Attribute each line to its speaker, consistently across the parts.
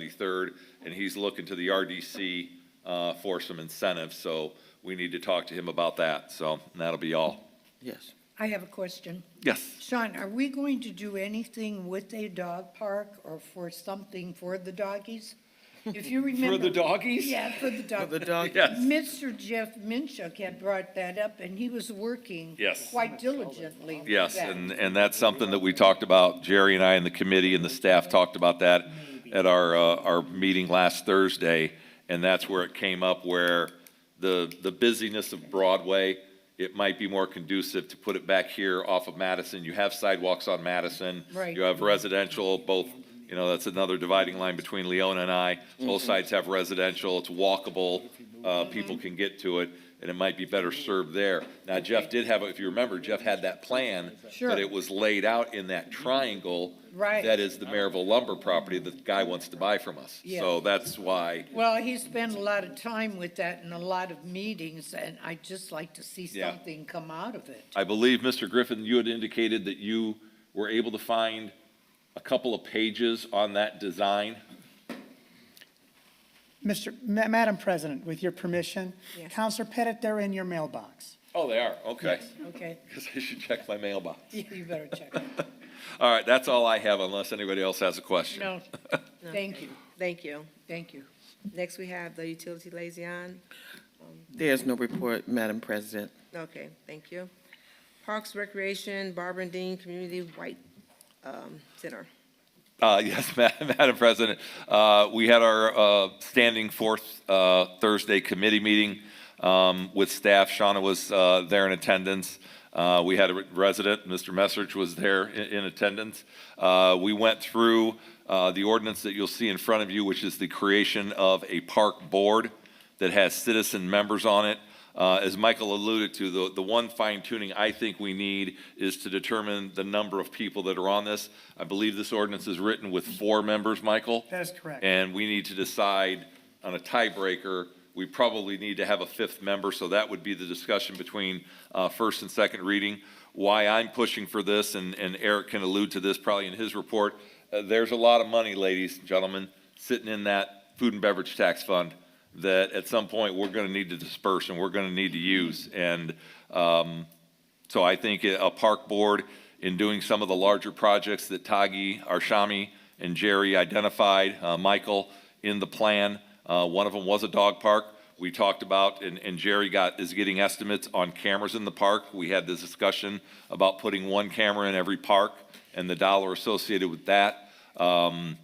Speaker 1: 73rd, and he's looking to the RDC uh, for some incentives, so we need to talk to him about that, so and that'll be all.
Speaker 2: Yes.
Speaker 3: I have a question.
Speaker 1: Yes.
Speaker 3: Sean, are we going to do anything with a dog park or for something for the doggies? If you remember.
Speaker 1: For the doggies?
Speaker 3: Yeah, for the dog.
Speaker 2: The dog,
Speaker 1: Yes.
Speaker 3: Mr. Jeff Minchuk had brought that up, and he was working.
Speaker 1: Yes.
Speaker 3: Quite diligently. with
Speaker 1: Yes,
Speaker 3: that.
Speaker 1: and, and that's something that we talked about, Jerry and I and the committee and the staff talked about that at our, uh, our meeting last Thursday, and that's where it came up, where the, the busyness of Broadway, it might be more conducive to put it back here off of Madison. You have sidewalks on Madison.
Speaker 3: Right.
Speaker 1: You have residential, both, you know, that's another dividing line between Leona and I. Both sides have residential, it's walkable, uh, people can get to it, and it might be better served there. Now Jeff did have, a- if you remember, Jeff had that plan.
Speaker 3: Sure.
Speaker 1: But it was laid out in that triangle.
Speaker 3: Right.
Speaker 1: That is the Maryville lumber property that the guy wants to buy from us. So
Speaker 3: Yeah.
Speaker 1: that's why,
Speaker 3: Well, he spent a lot of time with that and a lot of meetings, and I'd just like to see
Speaker 1: Yeah.
Speaker 3: something come out of it.
Speaker 1: I believe, Mr. Griffin, you had indicated that you were able to find a couple of pages on that design.
Speaker 4: Mr., Ma- Madam President, with your permission,
Speaker 3: Yes.
Speaker 4: Counselor Pettit, they're in your mailbox.
Speaker 1: Oh, they are, okay.
Speaker 3: Okay,
Speaker 1: Because I should check my mailbox.
Speaker 3: you better check. it.
Speaker 1: All right, that's all I have unless anybody else has a question.
Speaker 3: No, thank you,
Speaker 5: Thank you.
Speaker 3: thank you.
Speaker 5: Next, we have the utility liaison.
Speaker 2: there's no report, Madam President.
Speaker 5: Okay, thank you. Parks Recreation, Barbara and Dean Community White um, Center.
Speaker 1: Uh, yes, Ma- Madam President, uh, we had our, uh, standing fourth, uh, Thursday committee meeting, um, with staff. Shauna was, uh, there in attendance. Uh, we had a re- resident, Mr. Messrich was there in, in attendance. Uh, we went through, uh, the ordinance that you'll see in front of you, which is the creation of a park board that has citizen members on it. Uh, As Michael alluded to, the, the one fine tuning I think we need is to determine the number of people that are on this. I believe this ordinance is written with four members, Michael?
Speaker 4: That is correct.
Speaker 1: And we need to decide on a tiebreaker, we probably need to have a fifth member, so that would be the discussion between uh, first and second reading. Why I'm pushing for this, and and Eric can allude to this probably in his report, uh, there's a lot of money, ladies and gentlemen, sitting in that food and beverage tax fund that at some point, we're going to need to disperse and we're going to need to use. And um, so I think a a park board, in doing some of the larger projects that Tagi, Arshami, and Jerry identified, uh, Michael, in the plan, uh, one of them was a dog park. We talked about, and, and Jerry got, is getting estimates on cameras in the park. We had this discussion about putting one camera in every park and the dollar associated with that. Um,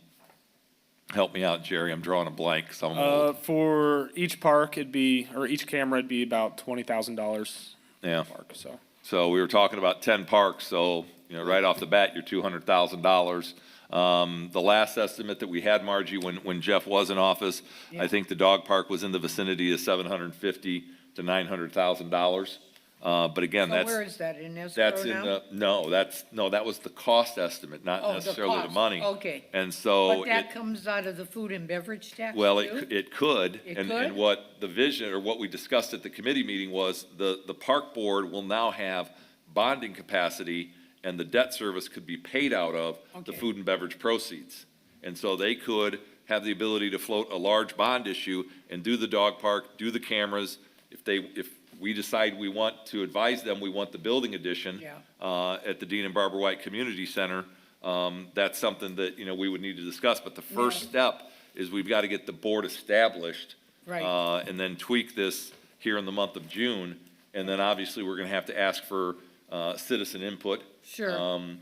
Speaker 1: Help me out, Jerry, I'm drawing a blank, so I'm
Speaker 6: Uh,
Speaker 1: old.
Speaker 6: for each park, it'd be, or each camera, it'd be about twenty thousand dollars
Speaker 1: Yeah.
Speaker 6: park, so.
Speaker 1: So we were talking about ten parks, so, you know, right off the bat, you're two hundred thousand dollars. Um, the last estimate that we had, Margie, when, when Jeff was in office, I think the dog park was in the vicinity of seven hundred and fifty to nine hundred thousand dollars. Uh, but again,
Speaker 3: So
Speaker 1: that's.
Speaker 3: where is that, in escrow now?
Speaker 1: That's in the, no, that's, no, that was the cost estimate, not
Speaker 3: Oh, the
Speaker 1: necessarily the
Speaker 3: cost,
Speaker 1: money.
Speaker 3: okay.
Speaker 1: And so.
Speaker 3: But
Speaker 1: it-
Speaker 3: that comes out of the food and beverage tax,
Speaker 1: well, it,
Speaker 3: too?
Speaker 1: c- it could.
Speaker 3: It
Speaker 1: And, and
Speaker 3: could?
Speaker 1: what the vision, or what we discussed at the committee meeting was, the, the park board will now have bonding capacity, and the debt service could be paid out of the
Speaker 3: Okay.
Speaker 1: food and beverage proceeds. And so they could have the ability to float a large bond issue and do the dog park, do the cameras. If they, if we decide we want to advise them, we want the building addition
Speaker 3: Yeah.
Speaker 1: uh, at the Dean and Barbara White Community Center, um, that's something that, you know, we would need to discuss. But the first step is we've got to get the board established.
Speaker 3: Right.
Speaker 1: uh, And then tweak this here in the month of June. And then obviously, we're going to have to ask for uh, citizen input.
Speaker 3: Sure.
Speaker 1: um,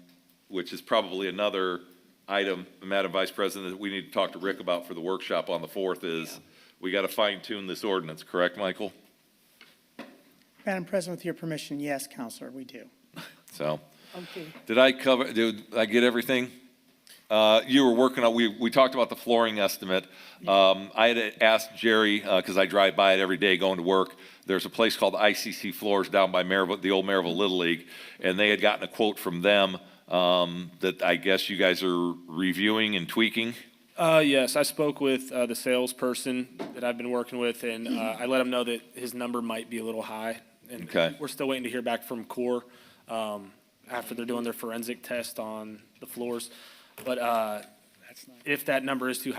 Speaker 1: Which is probably another item, Madam Vice President, that we need to talk to Rick about for the workshop on the 4th is, we got to fine tune this ordinance, correct, Michael?
Speaker 4: Madam President, with your permission, yes, Counselor, we do.
Speaker 1: So.
Speaker 3: Okay,
Speaker 1: Did I cover, did I get everything? Uh, You were working on, we, we talked about the flooring estimate. Um, I had asked Jerry, because I drive by it every day going to work, there's a place called ICC Floors down by Maryville, the old Maryville Little League, and they had gotten a quote from them um, that I guess you guys are reviewing and tweaking.
Speaker 6: Uh, yes, I spoke with, uh, the salesperson that I've been working with, and, uh, I let him know that his number might be a little high. and
Speaker 1: Okay.
Speaker 6: We're still waiting to hear back from Core, um, after they're doing their forensic test on the floors. But, uh, if that number is too high.